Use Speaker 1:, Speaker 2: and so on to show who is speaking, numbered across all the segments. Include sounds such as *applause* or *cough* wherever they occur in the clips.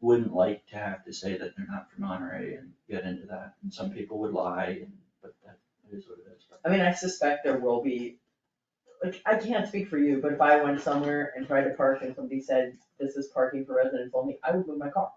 Speaker 1: wouldn't like to have to say that they're not from Monterey and get into that, and some people would lie, and, but that is what it is.
Speaker 2: I mean, I suspect there will be, like, I can't speak for you, but if I went somewhere and tried to park and somebody said, this is parking for residents only, I would move my car.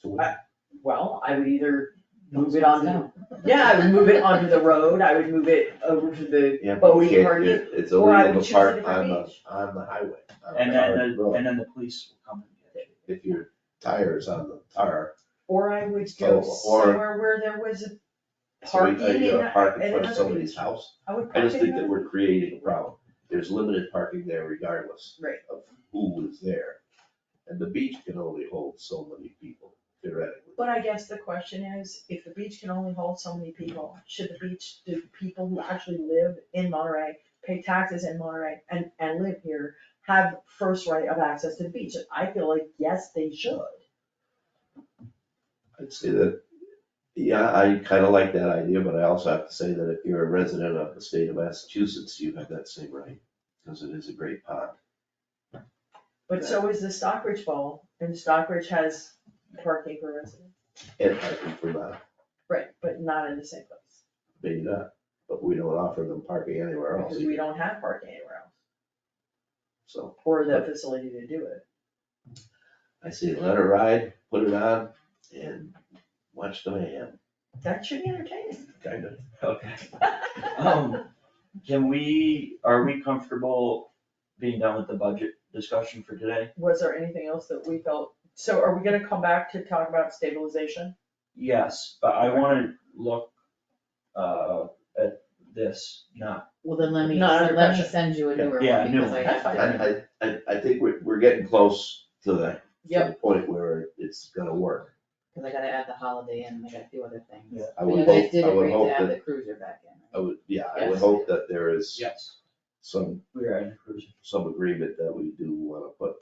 Speaker 3: So what,
Speaker 2: Well, I would either, Move it on down. yeah, I would move it onto the road, I would move it over to the
Speaker 3: yeah, but you
Speaker 2: boating
Speaker 3: can't,
Speaker 2: party.
Speaker 3: it- it's
Speaker 2: or I
Speaker 3: illegal
Speaker 2: would
Speaker 3: to
Speaker 2: choose a
Speaker 3: park
Speaker 2: different
Speaker 3: on the,
Speaker 2: beach.
Speaker 3: on the highway. on
Speaker 1: And then,
Speaker 3: the
Speaker 1: uh,
Speaker 3: covered
Speaker 1: the-
Speaker 3: road.
Speaker 1: and then the police will come and get you.
Speaker 3: If your tire's on the tar,
Speaker 2: Or I would go
Speaker 3: Oh, or-
Speaker 2: somewhere where there was a
Speaker 3: so we, uh,
Speaker 2: parking
Speaker 3: are you
Speaker 2: and
Speaker 3: gonna park in
Speaker 2: and
Speaker 3: front of
Speaker 2: another
Speaker 3: somebody's
Speaker 2: beach.
Speaker 3: house?
Speaker 2: I would
Speaker 3: I
Speaker 2: park
Speaker 3: just think that
Speaker 2: in
Speaker 3: we're creating a problem. There's limited parking there regardless
Speaker 2: Right.
Speaker 3: of who is there. And the beach can only hold so many people theoretically.
Speaker 2: But I guess the question is, if the beach can only hold so many people, should the beach, do people who actually live in Monterey, pay taxes in Monterey and, and live here, have first right of access to the beach? I feel like, yes, they should.
Speaker 3: I'd say that, yeah, I kinda like that idea, but I also have to say that if you're a resident of the state of Massachusetts, you have that same right, because it is a great pond.
Speaker 2: But so is the Stockbridge Bowl, and Stockbridge has parking for residents,
Speaker 3: And parking for that,
Speaker 2: right, but not in the same place,
Speaker 3: maybe not, but we don't offer them parking anywhere else
Speaker 2: because we
Speaker 3: either,
Speaker 2: don't have parking anywhere else,
Speaker 3: so
Speaker 2: or the facility to do it.
Speaker 3: I say let it ride, put it on, and watch the mayhem,
Speaker 2: That should be
Speaker 3: *laughs*
Speaker 2: entertaining.
Speaker 3: kinda.
Speaker 1: Okay. *laughs* Um, can we, are we comfortable being done with the budget discussion for today?
Speaker 2: Was there anything else that we felt, so are we gonna come back to talk about stabilization?
Speaker 1: Yes, but I wanna look, uh, at this, not,
Speaker 4: Well, then let me,
Speaker 2: Not under
Speaker 4: let me
Speaker 2: pressure.
Speaker 4: send you a newer one
Speaker 1: Yeah, yeah, new
Speaker 4: because I
Speaker 1: one.
Speaker 4: have
Speaker 2: That's
Speaker 3: I,
Speaker 4: to.
Speaker 3: I, I, I think we're, we're getting close to the, to the
Speaker 4: Yep.
Speaker 3: point where it's gonna work.
Speaker 4: Cause I gotta add the holiday in, and I gotta do other things.
Speaker 1: Yeah.
Speaker 3: I
Speaker 4: But
Speaker 3: would
Speaker 4: you guys
Speaker 3: hope,
Speaker 4: did
Speaker 3: I would
Speaker 4: agree
Speaker 3: hope
Speaker 4: to add
Speaker 3: that,
Speaker 4: the cruiser back in.
Speaker 3: I would, yeah, I would
Speaker 4: Yes.
Speaker 3: hope that there is
Speaker 1: yes,
Speaker 3: some
Speaker 1: we are in a cruise.
Speaker 3: some agreement that we do wanna put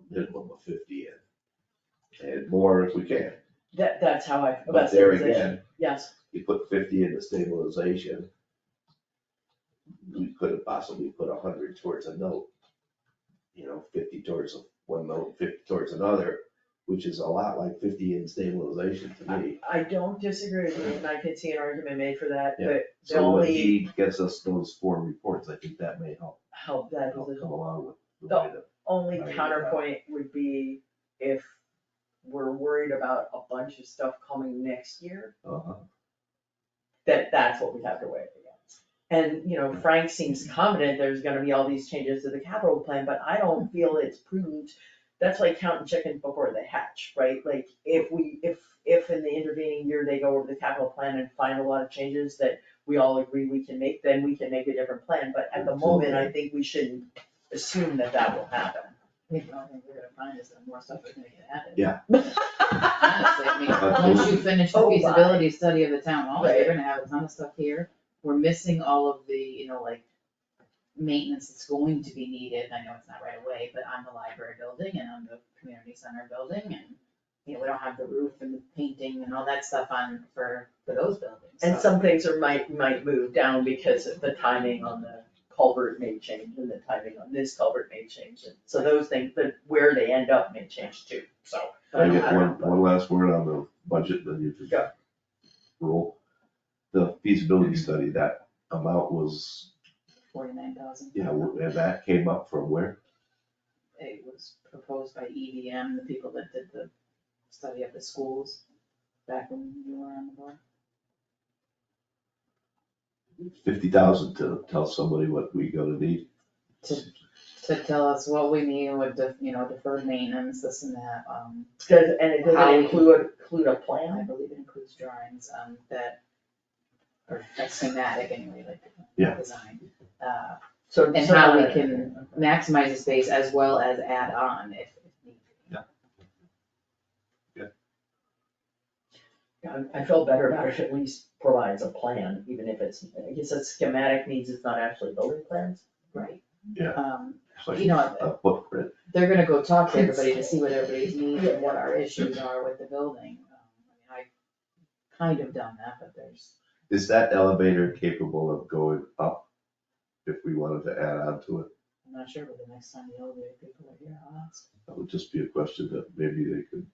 Speaker 3: a minimum of fifty in. And more if we can,
Speaker 2: That, that's how I,
Speaker 3: but
Speaker 2: that's
Speaker 3: there
Speaker 2: the position,
Speaker 3: again,
Speaker 2: yes,
Speaker 3: you put fifty into stabilization. We could have possibly put hundred towards a note. You know, fifty towards one note, fifty towards another, which is a lot like fifty in stabilization to me.
Speaker 2: I don't disagree with you, and I could see an argument made for that,
Speaker 3: Yeah.
Speaker 2: but the
Speaker 3: So when
Speaker 2: only
Speaker 3: he gets us those four reports, I think that may help,
Speaker 2: help that
Speaker 3: help
Speaker 2: position,
Speaker 3: come along with the
Speaker 2: The-
Speaker 3: way that,
Speaker 2: only
Speaker 3: I agree with that.
Speaker 2: counterpoint would be if we're worried about a bunch of stuff coming next year,
Speaker 3: uh-huh.
Speaker 2: that that's what we have to weigh against. And, you know, Frank seems confident there's gonna be all these changes to the capital plan, but I don't feel it's prudent. That's like counting chickens before they hatch, right? Like, if we, if, if in the intervening year they go over the capital plan and find a lot of changes that we all agree we can make, then we can make a different plan, but at the moment, I think we shouldn't assume that that will happen.
Speaker 4: I think the only thing we're gonna find is that more stuff is gonna get added. *laughs* Honestly, I mean,
Speaker 3: *laughs*
Speaker 2: Honestly,
Speaker 3: But
Speaker 4: once you finish the
Speaker 2: Oh, my.
Speaker 4: feasibility study of the town hall,
Speaker 2: Right.
Speaker 4: you're gonna have a ton of stuff here. We're missing all of the, you know, like, maintenance that's going to be needed, I know it's not right away, but on the library building and on the community center building and, you know, we don't have the roof and the painting and all that stuff on, for, for those buildings,
Speaker 2: And
Speaker 4: so.
Speaker 2: some things are might, might move down because of the timing on the culvert may change and the timing on this culvert may change. And So those things, but where they end up may change too, so.
Speaker 3: Can I get one, one last word on the budget, then you just
Speaker 2: Go.
Speaker 3: roll. The feasibility
Speaker 2: Mm-hmm.
Speaker 3: study, that amount was,
Speaker 4: Forty-nine thousand.
Speaker 3: yeah, and that came up from where?
Speaker 4: It was proposed by EDM, the people that did the study of the schools back when you were on the board.
Speaker 3: Fifty thousand to tell somebody what we gonna need.
Speaker 4: to tell us what we need with the, you know, deferred maintenance, this and that, um,
Speaker 2: Does, and it
Speaker 4: How
Speaker 2: doesn't
Speaker 4: we-
Speaker 2: include, include a
Speaker 4: and I
Speaker 2: plan?
Speaker 4: believe it includes drawings, um, that are like schematic anyway, like
Speaker 3: Yeah.
Speaker 4: design. Uh,
Speaker 2: So.
Speaker 4: And
Speaker 2: so-
Speaker 4: how we can- maximize the space as well as add on if, if need. be.
Speaker 2: I- I feel better about it, at least provides a plan, even if it's, I guess a schematic means it's not actually building plans.
Speaker 4: Right.
Speaker 3: Yeah.
Speaker 4: Um,
Speaker 3: It's like
Speaker 4: You know,
Speaker 3: A footprint,
Speaker 4: they're gonna go talk to everybody to see what everybody's needs and what our issues are with the building. Um, I mean, I kind of done that, but there's,
Speaker 3: is that elevator capable of going up? If we wanted to add on to it,
Speaker 4: I'm not sure, but the next time the elevator people are here, I'll ask.
Speaker 3: that would just be a question that maybe they could